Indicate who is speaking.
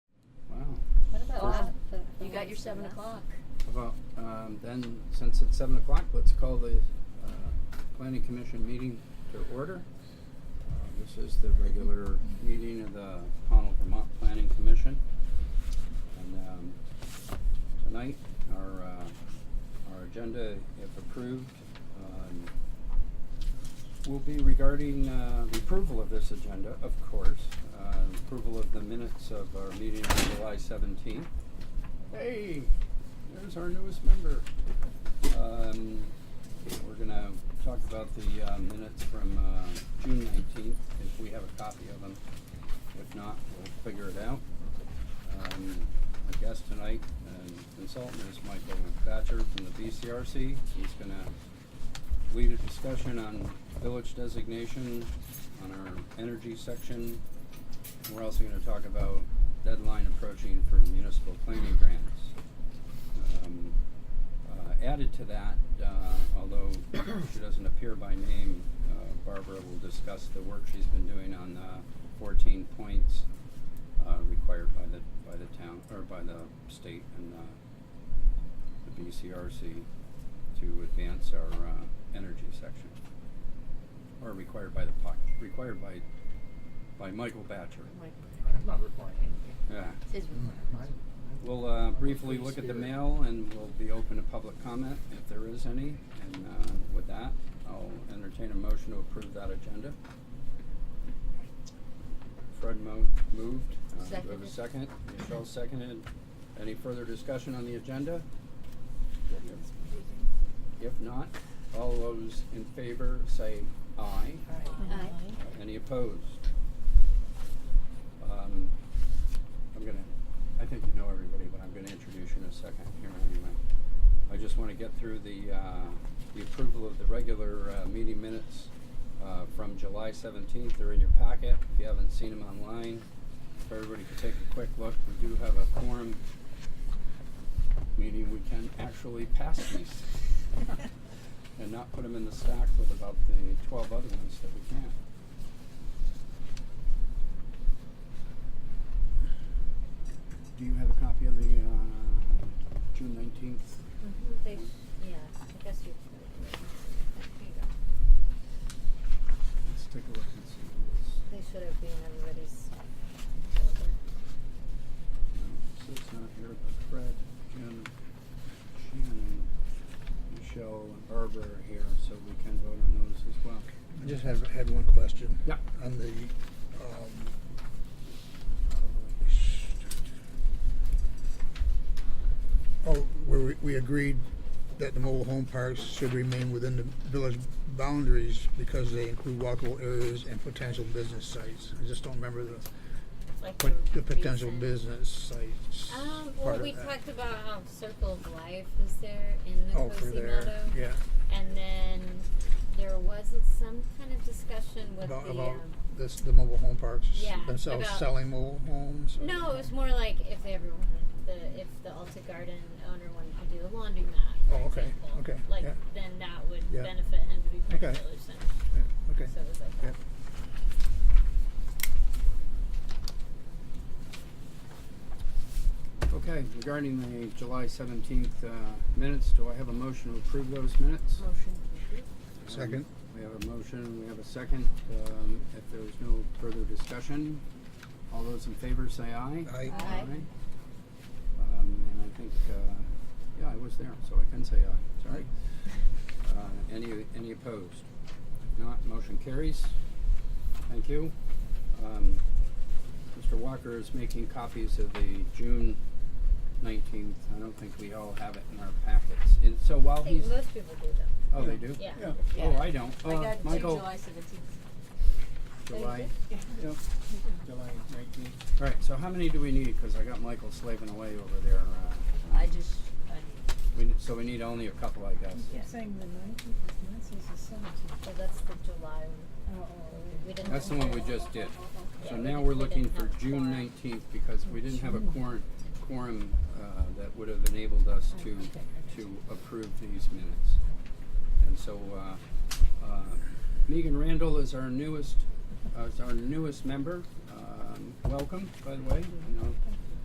Speaker 1: got your seven
Speaker 2: enough.
Speaker 1: o'clock.
Speaker 3: About, um, then, since it's seven o'clock, let's call the, uh, planning commission meeting to order. Uh, This is the regular meeting of the Pownell Vermont Planning Commission. And, um, tonight, our, uh, our agenda, if approved, um, will be regarding, uh, the approval of this agenda, of course. Uh, approval of the minutes of our meeting on July seventeenth. Hey, there's our newest member. Um, we're gonna talk about the, uh minutes from, uh, June nineteenth, if we have a copy of them. If not, we'll figure it out. Um, our guest tonight and consultant is Michael Batcher from the BCRC. He's gonna lead a discussion on village designation, on our energy section. We're also gonna talk about deadline approaching for municipal planning grants. Um, uh, added to that, uh, although she doesn't appear by name, uh, Barbara will discuss the work she's been doing on the fourteen points uh, required by the, by the town, or by the state and, uh, the BCRC to advance our, uh, energy section. Or required by the POC, required by, by Michael Batcher,
Speaker 4: I'm not requiring anything.
Speaker 3: yeah.
Speaker 1: Says we-
Speaker 4: I- I-
Speaker 3: We'll uh,
Speaker 4: I'm
Speaker 3: briefly
Speaker 4: free
Speaker 3: look at the
Speaker 4: spirit.
Speaker 3: mail and we'll be open to public comment if there is any. And uh, with that, I'll entertain a motion to approve that agenda. Fred mo- moved. Uh, Do we have a
Speaker 1: Seconded.
Speaker 3: second? Michelle seconded. Any further discussion on the agenda? If not, all those in favor say aye.
Speaker 1: Aye.
Speaker 3: Any opposed? Um, I'm gonna, I think you know everybody, but I'm gonna introduce you in a second here anyway. I just wanna get through the, uh, the approval of the regular, uh, meeting minutes, uh, from July seventeenth. They're in your packet. If you haven't seen them online, if everybody could take a quick look, we do have a quorum. Meaning we can actually pass these and not put them in the stack with about the twelve other ones that we can't. Do you have a copy of the uh, June nineteenth?
Speaker 1: Mhm, they- Yeah, I guess you. There you go.
Speaker 3: Let's take a look and see what
Speaker 1: They should have been everybody's folder.
Speaker 3: it's. So it's not here, but Fred, Jim, Shannon, Michelle, and Barbara are here, so we can vote on those as well.
Speaker 5: I just had, had one question.
Speaker 3: Yeah.
Speaker 5: On the, um, uh, sh- oh, where we, we agreed that the mobile home parks should remain within the village boundaries because they include walkable areas and potential business sites. I just don't remember the,
Speaker 2: Like
Speaker 5: pot- the potential
Speaker 2: reason-
Speaker 5: business sites
Speaker 6: Um, well,
Speaker 5: part
Speaker 6: we
Speaker 5: of that.
Speaker 6: talked about um, Circle of Life was there in the
Speaker 5: Oh, for
Speaker 6: Cozy Meadow,
Speaker 5: there, yeah,
Speaker 6: and then there was some kind of discussion with
Speaker 5: about,
Speaker 6: the.
Speaker 5: about
Speaker 6: um,
Speaker 5: this, the mobile home parks
Speaker 6: Yeah,
Speaker 5: themselves
Speaker 6: about-
Speaker 5: selling mobile homes. or-
Speaker 6: no, it was more like if they ever wanted the if the Alta Garden owner wanted to do a laundromat. For
Speaker 5: Oh, okay,
Speaker 6: example,
Speaker 5: okay,
Speaker 6: Like
Speaker 5: yeah.
Speaker 6: then that would
Speaker 5: Yeah.
Speaker 6: benefit him to be part of
Speaker 5: Okay.
Speaker 6: the village center.
Speaker 5: Yeah, Okay.
Speaker 6: So it was like
Speaker 5: Yeah.
Speaker 6: that.
Speaker 3: Okay, regarding the July seventeenth uh, minutes, do I have a motion to approve those minutes?
Speaker 2: Motion to approve.
Speaker 5: Second.
Speaker 3: We have a motion, we have a second. Um, if there is no further discussion, all those in favor say aye.
Speaker 5: Aye.
Speaker 1: Aye.
Speaker 3: Um, and I think, uh, yeah, I was there, so I can say aye, sorry. Uh, any, any opposed? If not, motion carries. Thank you. Um, Mr. Walker is making copies of the June nineteenth. I don't think we all have it in our packets. And so
Speaker 6: I
Speaker 3: while
Speaker 6: think
Speaker 3: he's,
Speaker 6: most people do though.
Speaker 3: oh, they do?
Speaker 6: Yeah.
Speaker 3: Oh, I don't.
Speaker 1: I
Speaker 3: Uh,
Speaker 1: got it
Speaker 3: Michael.
Speaker 1: till July seventeenth.
Speaker 3: July,
Speaker 2: Yeah.
Speaker 3: yep, July nineteenth. All right, so how many do we need? Cause I got Michael slaving away over there. Uh,
Speaker 1: I just, I,
Speaker 3: we, need- so we need only a couple, I guess.
Speaker 7: You're saying the nineteenth, is mine says the seventeenth.
Speaker 6: Well, that's the July one.
Speaker 7: Oh,
Speaker 6: We didn't.
Speaker 3: That's the one we just did. So
Speaker 6: Yeah, we
Speaker 3: now
Speaker 6: didn't-
Speaker 3: we're
Speaker 6: we
Speaker 3: looking
Speaker 6: didn't
Speaker 3: for
Speaker 6: have a
Speaker 3: June
Speaker 6: quorum.
Speaker 3: nineteenth because we didn't have a quorum, quorum, uh, that would have enabled us to, to approve these minutes. And so, uh, uh, Megan Randall is our newest, uh, is our newest member. Um, welcome, by the way. I know